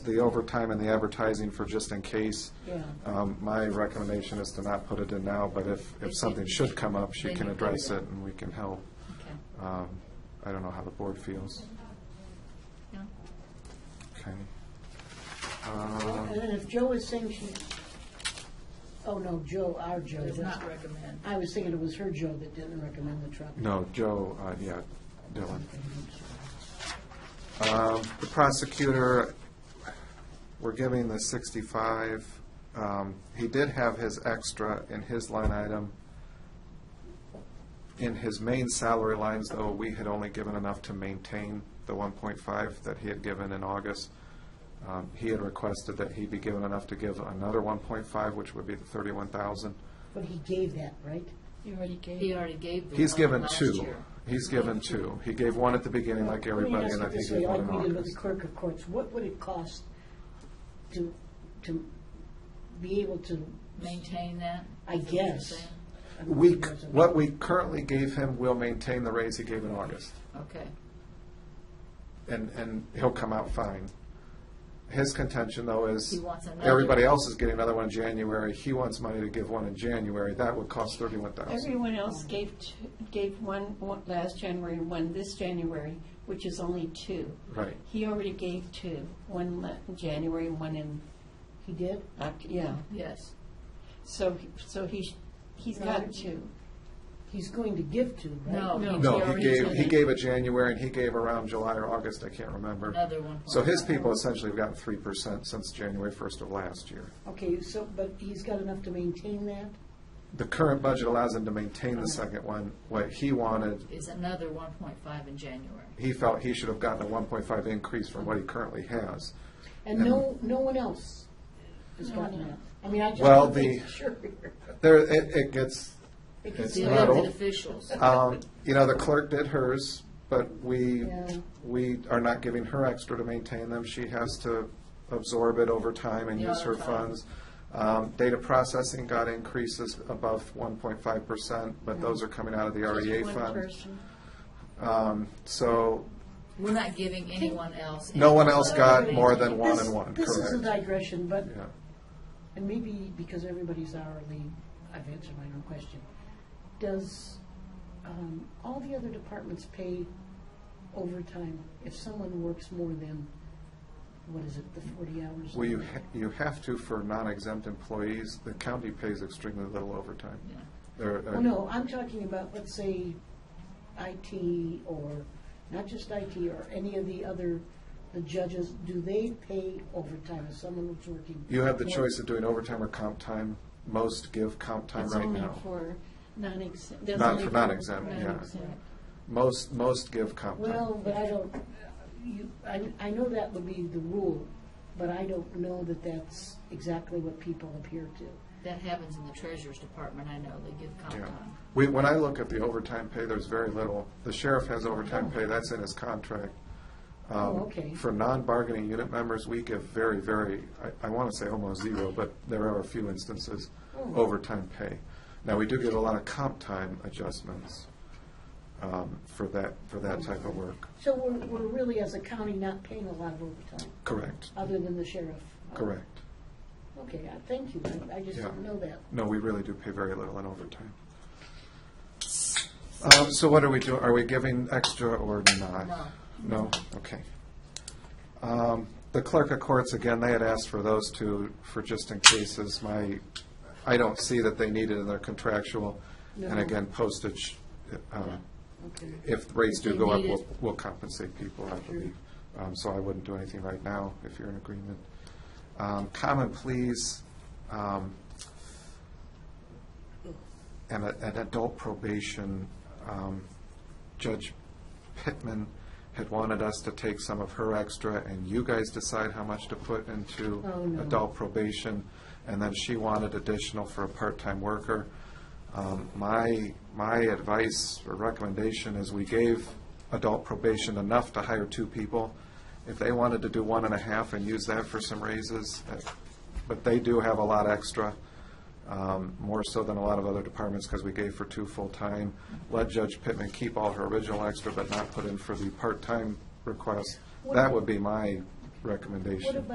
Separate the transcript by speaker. Speaker 1: the overtime and the advertising for just in case.
Speaker 2: Yeah.
Speaker 3: Uh,
Speaker 1: Um, My recommendation is to not put it in now, but if, if something should come up, she
Speaker 2: Then
Speaker 1: can
Speaker 2: you put it
Speaker 1: address
Speaker 2: in.
Speaker 1: it and we can help.
Speaker 2: Okay.
Speaker 1: Um, I don't know how the board feels.
Speaker 2: No?
Speaker 1: Okay.
Speaker 3: And
Speaker 1: Um,
Speaker 3: then if Joe is saying she, oh no, Joe, our Joe.
Speaker 2: Does
Speaker 3: that's-
Speaker 2: not recommend.
Speaker 3: I was thinking it was her Joe that didn't recommend the truck.
Speaker 1: No, Joe, uh, yeah, Dylan. Um, The prosecutor, we're giving the 65. Um, He did have his extra in his line item. In his main salary lines, though, we had only given enough to maintain the 1.5 that he had given in August. Um, He had requested that he be given enough to give another 1.5, which would be the 31,000.
Speaker 3: But he gave that, right?
Speaker 4: You already gave.
Speaker 2: He already gave the.
Speaker 1: He's
Speaker 2: one
Speaker 1: given
Speaker 2: last
Speaker 1: two.
Speaker 2: year.
Speaker 1: He's given two. He gave one at the beginning, like everybody, and I
Speaker 3: Let me
Speaker 1: think
Speaker 3: ask
Speaker 1: he gave
Speaker 3: you this way,
Speaker 1: one in
Speaker 3: Like we did with the
Speaker 1: August.
Speaker 3: clerk of courts, what would it cost to, to be able to,
Speaker 2: Maintain that?
Speaker 3: I guess. I mean,
Speaker 1: We,
Speaker 3: it
Speaker 1: c-
Speaker 3: wasn't-
Speaker 1: what we currently gave him will maintain the raise he gave in August,
Speaker 2: Okay.
Speaker 1: and, and he'll come out fine. His contention, though,
Speaker 2: He
Speaker 1: is
Speaker 2: wants another.
Speaker 1: everybody else is getting another one in January. He wants money to give one in January. That would cost thirty-one thousand.
Speaker 4: Everyone else gave, t- gave one, one last January and one this January, which is only two.
Speaker 1: Right.
Speaker 4: He already gave two, one le- in January and one in,
Speaker 3: He did?
Speaker 4: Oc- yeah.
Speaker 2: Yes.
Speaker 4: So, he- so he's, he's got two.
Speaker 3: He's going to give to, right?
Speaker 2: No.
Speaker 4: No.
Speaker 1: No,
Speaker 2: already
Speaker 1: he gave,
Speaker 2: said
Speaker 1: he
Speaker 2: that.
Speaker 1: gave a January, and he gave around July or August, I can't remember.
Speaker 2: Another 1.5.
Speaker 1: So his people essentially have gotten three percent since January first of last year.
Speaker 3: Okay, so, but he's got enough to maintain that?
Speaker 1: The current budget allows him to maintain the second one. What he wanted,
Speaker 2: Is another one point five in January.
Speaker 1: he felt he should have gotten a one point five increase from what he currently has.
Speaker 3: And no, no one else has gotten that? I mean, I just.
Speaker 1: Well,
Speaker 3: wanna make
Speaker 1: the-
Speaker 3: Sure.
Speaker 1: There, it, it gets, It's
Speaker 3: Because
Speaker 2: The
Speaker 3: the-
Speaker 1: not
Speaker 2: elected
Speaker 1: all-
Speaker 2: officials.
Speaker 1: um, you know, the clerk did hers, but we,
Speaker 3: Yeah.
Speaker 1: we are not giving her extra to maintain them. She has to absorb it over time and use her
Speaker 2: Yeah.
Speaker 1: funds. Um, data processing got increases above one point five percent, but those are coming out of the REA
Speaker 4: One
Speaker 1: E fund.
Speaker 4: person.
Speaker 1: Um, so
Speaker 2: We're not giving anyone else.
Speaker 1: no
Speaker 2: any
Speaker 1: one else got
Speaker 2: money.
Speaker 1: more than one
Speaker 3: This-
Speaker 1: and one,
Speaker 3: This is a
Speaker 1: correct?
Speaker 3: digression, but,
Speaker 1: Yeah.
Speaker 3: and maybe because everybody's hourly, I've answered my own question. Does, um, all the other departments pay overtime if someone works more than, what is it, the forty hours?
Speaker 1: Well, you, ha- you have to for non-exempt employees. The county pays extremely little overtime.
Speaker 2: Yeah.
Speaker 1: There, uh,
Speaker 3: Well, no, I'm talking about, let's say, IT or, not just IT, or any of the other, the judges, do they pay overtime if someone was working?
Speaker 1: You have the
Speaker 3: more-
Speaker 1: choice of doing overtime or comp time. Most give comp time
Speaker 4: That's
Speaker 1: right
Speaker 4: only
Speaker 1: now.
Speaker 4: for non-exempt. that's
Speaker 1: Not
Speaker 4: only
Speaker 1: for non-exempt, yeah.
Speaker 4: non-exempt.
Speaker 1: Most, most give comp time.
Speaker 3: Well, but I don't, you, I, I know that would be the rule, but I don't know that that's exactly what people appear to.
Speaker 2: That happens in the treasurer's department, I know, they give comp
Speaker 1: Yeah.
Speaker 2: time.
Speaker 1: We, when I look at the overtime pay, there's very little. The sheriff has overtime pay, that's in his contract. Um,
Speaker 3: Oh, okay.
Speaker 1: For non-bargaining unit members, we give very, very, I, I want to say almost zero, but there are a few instances,
Speaker 3: Oh.
Speaker 1: overtime pay. Now, we do get a lot of comp time adjustments um, for that, for that type of work.
Speaker 3: So we're, we're really, as a county, not paying a lot of overtime,
Speaker 1: Correct,
Speaker 3: other than the sheriff.
Speaker 1: correct.
Speaker 3: Okay, I- thank you, I, I just didn't
Speaker 1: Yeah.
Speaker 3: know that.
Speaker 1: No, we really do pay very little in overtime. Um, So what are we doing? Are we giving extra or not?
Speaker 2: No.
Speaker 1: No? Okay. Um, The clerk of courts, again, they had asked for those two for just in cases. My, I don't see that they need it in their contractual. And
Speaker 3: No.
Speaker 1: again, postage, um,
Speaker 3: Okay.
Speaker 1: if rates do
Speaker 2: They
Speaker 1: go up,
Speaker 2: need
Speaker 1: we'll
Speaker 2: it.
Speaker 1: we'll compensate people, I believe. Um, So I wouldn't do anything right now if you're in agreement. Um, Common pleas, um, and a- an adult probation, um, Judge Pittman had wanted us to take some of her extra, and you guys decide how much to put into
Speaker 3: Oh, no.
Speaker 1: adult probation, and then she wanted additional for a part-time worker. Um, My, my advice or recommendation is we gave adult probation enough to hire two people. If they wanted to do one and a half and use that for some raises, that- but they do have a lot extra um, more so than a lot of other departments, because we gave for two full-time. Let Judge Pittman keep all her original extra, but not put in for the part-time request. That would be my recommendation.
Speaker 3: What about